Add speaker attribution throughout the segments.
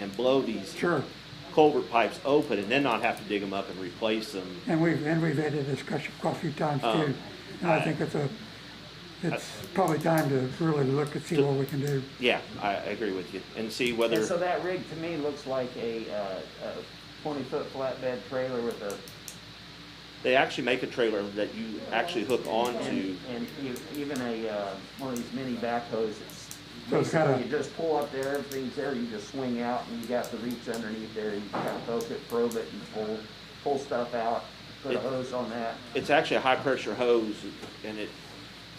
Speaker 1: and blow these
Speaker 2: Sure,
Speaker 1: culvert pipes open and then not have to dig them up and replace them.
Speaker 2: and we've, and we've had a discussion quite a few times too.
Speaker 1: Um,
Speaker 2: And I
Speaker 1: I-
Speaker 2: think it's a, it's probably time to really look and see what we can do.
Speaker 1: Yeah, I, I agree with you. And see
Speaker 3: And
Speaker 1: whether,
Speaker 3: so that rig to me looks like a, uh, a twenty-foot flatbed trailer with a.
Speaker 1: they actually make a trailer that you actually hook onto.
Speaker 3: and- And e- even a, uh, one of these mini backhoes, it's
Speaker 2: So it's kinda-
Speaker 3: basically you just pull up there, everything's there, you just swing out and you got the reach underneath there, you kind of poke it, probe it and pull, pull stuff out, put a
Speaker 1: It-
Speaker 3: hose on that.
Speaker 1: It's actually a high pressure hose and it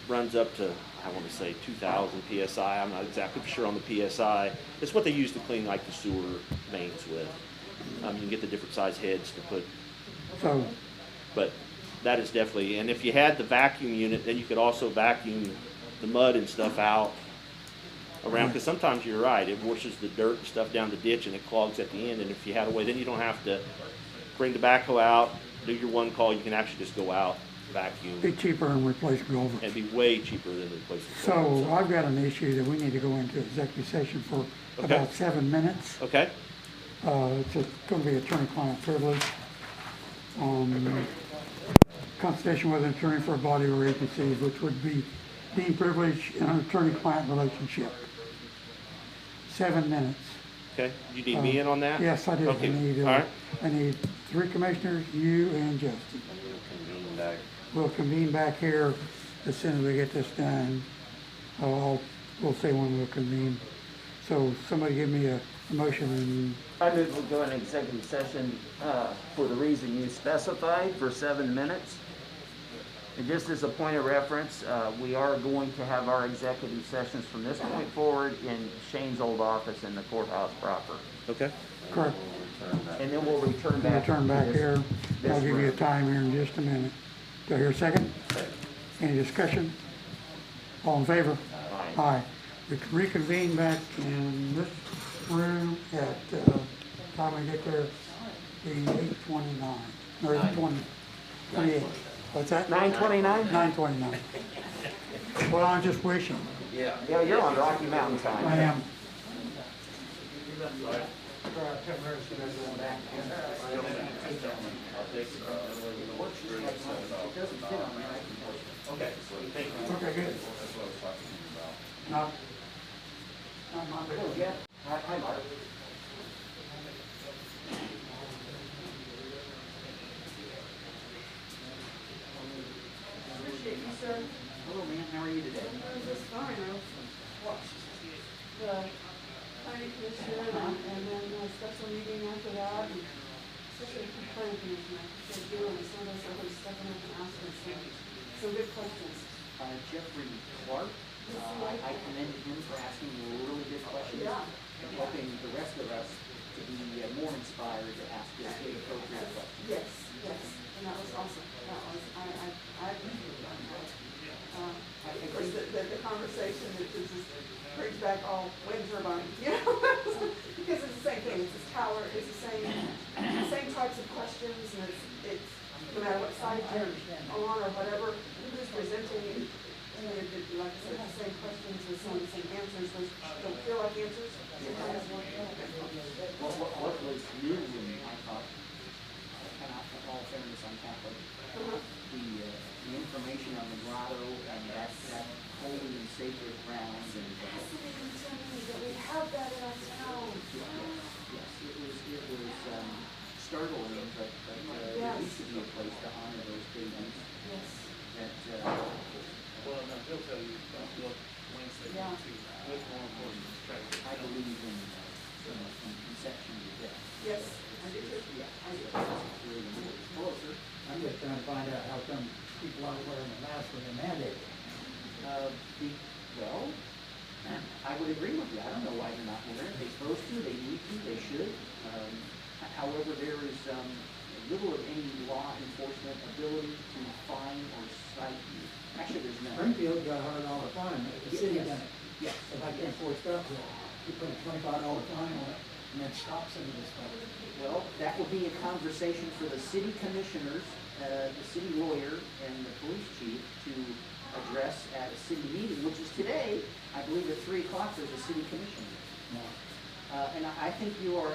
Speaker 1: runs up to, I wanna say two thousand PSI. I'm not exactly sure on the PSI. It's what they use to clean like the sewer mains with. Um, you can get the different size heads to put
Speaker 2: So,
Speaker 1: But that is definitely, and if you had the vacuum unit, then you could also vacuum the mud and stuff out around,
Speaker 2: Mm-hmm.
Speaker 1: because sometimes you're right, it washes the dirt and stuff down the ditch and it clogs at the end, and if you had a way, then you don't have to bring the backhoe out, do your one call, you can actually just go out,
Speaker 2: be
Speaker 1: vacuum,
Speaker 2: cheaper and replace culverts.
Speaker 1: and be way cheaper than replacing.
Speaker 2: So uh,
Speaker 1: culverts.
Speaker 2: I've got an issue that we need to go into executive session for
Speaker 1: Okay.
Speaker 2: about seven minutes.
Speaker 1: Okay,
Speaker 2: Uh, It's a- gonna be attorney-client privilege. Um, Consultation with an attorney for a body or agency, which would be deemed privilege in an attorney-client relationship. Seven minutes.
Speaker 1: okay, you need me in on that?
Speaker 2: uh, Yes, I do. I
Speaker 1: Okay,
Speaker 2: need,
Speaker 1: all
Speaker 2: uh,
Speaker 1: right.
Speaker 2: I need three commissioners, you and Justin.
Speaker 1: Convene back.
Speaker 2: We'll convene back here as soon as we get this done. I'll, we'll say when we'll convene. So somebody give me a a motion and
Speaker 3: I move we go into executive session, uh, for the reason you specified, for seven minutes. And just as a point of reference, uh, we are going to have our executive sessions from this point forward in Shane's old office in the courthouse proper.
Speaker 1: Okay,
Speaker 2: correct.
Speaker 3: And then we'll return
Speaker 2: We'll
Speaker 3: back.
Speaker 2: turn back
Speaker 3: to this-
Speaker 2: here. I'll
Speaker 3: this
Speaker 2: give you a
Speaker 3: room.
Speaker 2: time here in just a minute. Do I hear a second? Any discussion? All in favor?
Speaker 3: Aye.
Speaker 2: Aye. We can reconvene back in this room at, uh, time we get there, the eight twenty-nine, or eight twenty, twenty-eight. What's that?
Speaker 3: Nine twenty-nine?
Speaker 2: Nine twenty-nine. Well, I'm just wishing,
Speaker 3: Yeah, you're on Rocky Mountain
Speaker 2: I
Speaker 3: time.
Speaker 2: am. Okay, good. Not, not my big one.
Speaker 3: Hi, hi, Mark.
Speaker 4: Appreciate you, sir.
Speaker 3: Hello, man, how are you today?
Speaker 4: I'm just fine. I was watched the county commissioner and and then a special meeting after that. and Especially for planning commission, I appreciate you and some of those others stepping up and asking some, some good questions.
Speaker 3: Uh, Jeffrey Clark, uh, I commended him for asking really good questions
Speaker 4: Yeah.
Speaker 3: and helping the rest of us to be uh, more inspired to ask the appropriate questions.
Speaker 4: Yes, yes, and that was awesome. That was, I, I, I appreciate that. Um, Of course, the, the the conversation that is just brings back all wind turbine, you know? Because it's the same thing, it's this tower, it's the same, the same types of questions and it's, it's, no matter what side you're on or whatever, who's presenting it. You know, it- it- like I said, the same questions with some of the same answers, those don't feel like answers. Sometimes more
Speaker 3: What, what, what was new to me, I thought, and I, in all fairness, I'm Catholic,
Speaker 4: Uh-huh.
Speaker 3: the, uh, the information on the grotto and that, that holy and sacred grounds and, uh,
Speaker 4: Fascinating to me that we have that in our town.
Speaker 3: yes, it was, it was, um, startling, but, but, uh, there
Speaker 4: Yes.
Speaker 3: needs to be a place to honor those babies
Speaker 4: Yes.
Speaker 3: that, uh,
Speaker 5: Well, now, he'll tell you, don't look Wednesday,
Speaker 4: Yeah.
Speaker 5: too, with more important distractions.
Speaker 3: I believe in, uh, in in conception to death.
Speaker 4: Yes, I do too.
Speaker 3: Yeah.
Speaker 4: I do.
Speaker 3: Really important. Hello, sir.
Speaker 6: I'm just trying to find out how come people aren't wearing a mask when they're mandated.
Speaker 3: Uh, the, well, I would agree with you. I don't know why they're not wearing it. They're supposed to, they need to, they should. Um, h- however, there is, um, little of any law enforcement ability to fine or cite you. Actually, there's none.
Speaker 6: Springfield got hard all the time, but the city done it.
Speaker 3: Yes.
Speaker 6: If I can't afford stuff, well, you put a twenty-five dollar fine on it and then stop some of this stuff.
Speaker 3: Well, that will be a conversation for the city commissioners, uh, the city lawyer, and the police chief to address at a city meeting, which is today. I believe at three o'clock, there's a city commission.
Speaker 6: No,
Speaker 3: Uh, and I I think you are